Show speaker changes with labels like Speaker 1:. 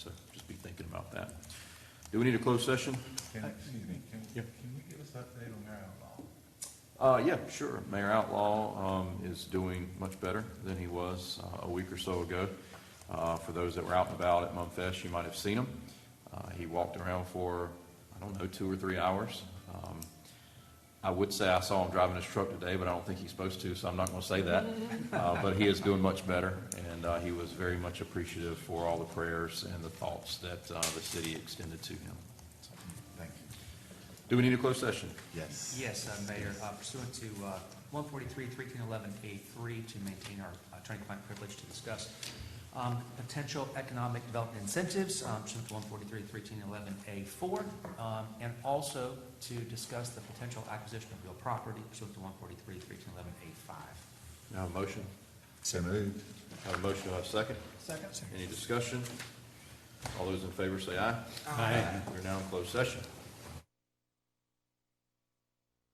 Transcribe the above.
Speaker 1: Do we need a closed session?
Speaker 2: Can, excuse me, can,
Speaker 1: Yeah.
Speaker 2: can we give us an update on Marion Law?
Speaker 1: Uh, yeah, sure. Mayor Outlaw, um, is doing much better than he was, uh, a week or so ago. Uh, for those that were out and about at Mumfest, you might have seen him. Uh, he walked around for, I don't know, two or three hours. Um, I would say I saw him driving his truck today, but I don't think he's supposed to, so I'm not gonna say that. Uh, but he is doing much better, and, uh, he was very much appreciative for all the prayers and the thoughts that, uh, the city extended to him.
Speaker 2: Thank you.
Speaker 1: Do we need a closed session?
Speaker 2: Yes.
Speaker 3: Yes, uh, Mayor, uh, pursuant to uh, 143, 1311A3, to maintain our attorney-client privilege to discuss um, potential economic development incentives, um, pursuant to 143, 1311A4, um, and also to discuss the potential acquisition of real property pursuant to 143, 1311A5.
Speaker 1: Do I Have a motion?
Speaker 2: So moved.
Speaker 1: Have a motion, do I have a second? Second. Any discussion? All those in favor say aye. Aye. We're now in closed session.